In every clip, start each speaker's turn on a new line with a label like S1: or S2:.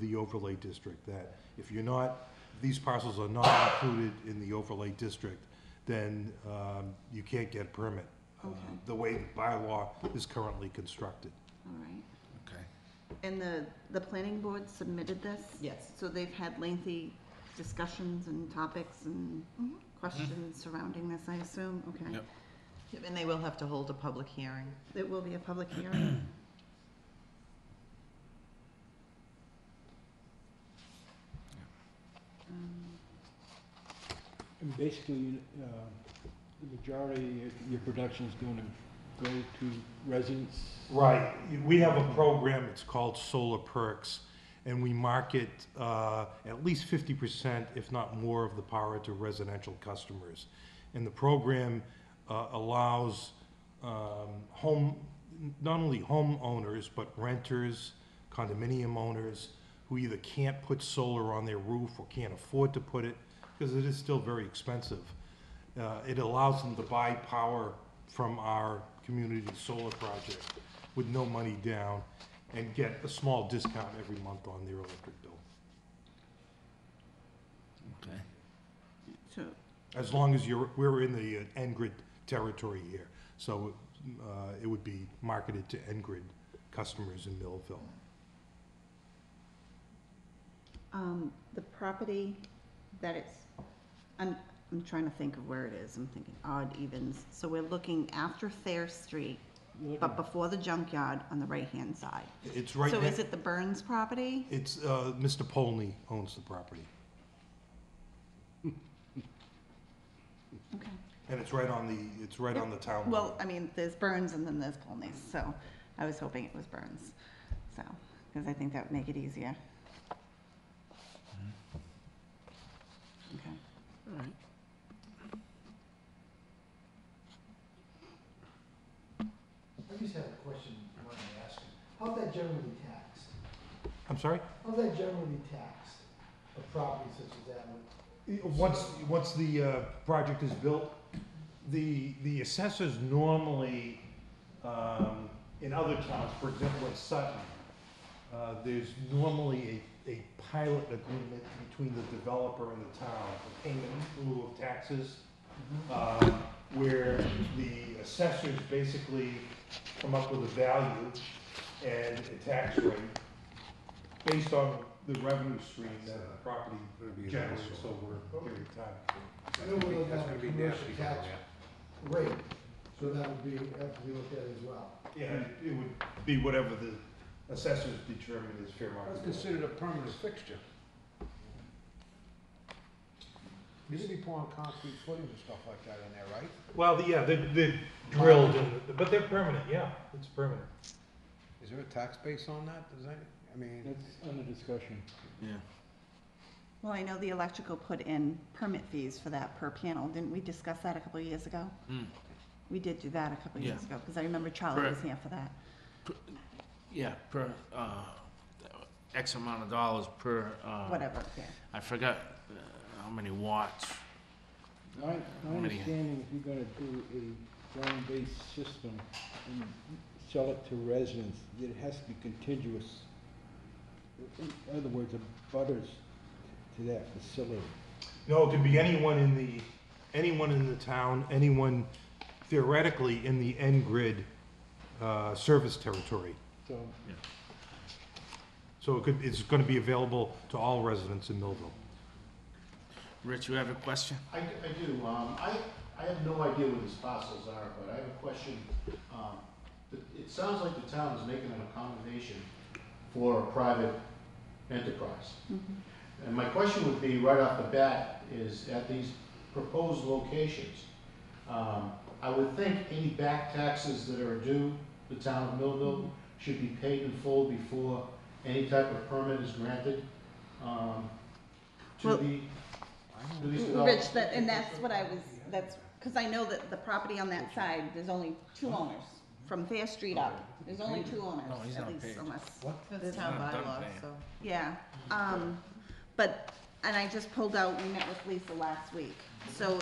S1: the overlay district, that if you're not, these parcels are not included in the overlay district, then um, you can't get a permit. uh,
S2: Okay.
S1: The way the bylaw is currently constructed.
S2: All right.
S3: Okay.
S2: And the, the planning board submitted this?
S4: Yes.
S2: So they've had lengthy discussions and topics and questions surrounding this, I assume? Okay.
S3: Yep.
S4: And they will have to hold a public hearing.
S2: It will be a public hearing? Um,
S5: And basically, uh, the majority of your production is going to go to residents.
S1: Right, we have a program, it's called Solar Perks, and we market uh, at least fifty percent, if not more, of the power to residential customers. And the program uh, allows um, home, not only homeowners, but renters, condominium owners, who either can't put solar on their roof or can't afford to put it, because it is still very expensive. Uh, It allows them to buy power from our community solar project with no money down and get a small discount every month on their electric bill,
S3: Okay.
S2: So,
S1: as long as you're, we're in the uh, N-Grid territory here. So uh, it would be marketed to N-Grid customers in Millville.
S2: um, the property that it's, I'm, I'm trying to think of where it is. I'm thinking odd evens. So we're looking after Fair Street,
S5: You're looking-
S2: but before the junkyard on the right-hand side.
S1: It's right,
S2: So
S1: ne-
S2: is it the Burns property?
S1: it's, uh, Mr. Polney owns the property,
S2: Okay.
S1: and it's right on the, it's right on the town. line.
S2: Well, I mean, there's Burns and then there's Polney's, so I was hoping it was Burns, so, because I think that would make it easier.
S6: Mm-hmm.
S2: Okay.
S7: I just have a question I wanted to ask you. How's that generally taxed?
S1: I'm sorry?
S7: How's that generally taxed, a property such as that? with-
S1: Once, once the uh, project is built, the, the assessors normally, um, in other towns, for example, in Sutton, uh, there's normally a, a pilot agreement between the developer and the town for payment in lieu of taxes, um, where the assessors basically come up with a value and a tax rate based on the revenue stream that the property generates over a period of time.
S7: I know we're looking
S3: That's
S7: at
S3: gonna
S7: a
S3: be
S7: commercial
S3: nasty. for
S7: tax
S3: you.
S7: rate, so that would be, have to be looked at as well.
S1: Yeah, it would be whatever the assessors determine is fair market.
S3: That's
S1: value.
S3: considered a permanent fixture. You should be pouring concrete footings and stuff like that in there, right?
S1: Well, the- yeah, they, they drilled, and- but they're permanent, yeah, it's permanent.
S3: Is there a tax base on that? Does that, I mean,
S5: That's under discussion.
S2: Well, I know the electrical put in permit fees for that per panel, didn't we discuss that a couple of years ago?
S6: Mm.
S2: We did do that a couple of years ago, because I remember Charlie was here for that.
S6: Yeah, per, uh, X amount of dollars per, uh.
S2: Whatever, yeah.
S6: I forgot uh, how many watts.
S5: My, my
S6: How many?
S5: understanding, if you're gonna do a ground-based system and sell it to residents, that it has to be contiguous. In other words, a butters to that facility.
S1: No, it could be anyone in the, anyone in the town, anyone theoretically in the N-Grid, uh, service territory.
S5: So
S1: So it could, it's gonna be available to all residents in Millville.
S6: Rich, you have a question?
S8: I, I do, um, I, I have no idea what these parcels are, but I have a question. Um, it, it sounds like the town is making an accommodation for a private enterprise.
S2: Mm-hmm.
S8: And my question would be, right off the bat, is at these proposed locations, um, I would think any back taxes that are due the town of Millville should be paid in full before any type of permit is granted, um, to
S2: Well-
S8: the, to these developers.
S2: Rich, that, and that's what I was, that's, because I know that the property on that side, there's only two owners, from Fair Street
S6: Oh,
S2: up, there's only two owners,
S6: No, Oh, he's
S2: at
S6: not
S2: least,
S6: paid.
S2: unless.
S4: That's town
S6: not done
S4: bylaw,
S6: paying.
S4: so.
S2: Yeah, um, but, and I just pulled out, we met with Lisa last week, so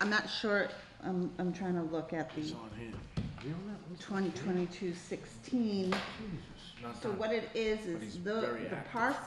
S2: I'm not sure, I'm, I'm trying to look at the
S6: It's on here.
S3: you don't know.
S2: twenty twenty-two sixteen.
S6: not
S2: So
S6: done.
S2: what it is,
S6: But he's
S2: is the,
S6: very
S2: the
S6: active.
S2: parcel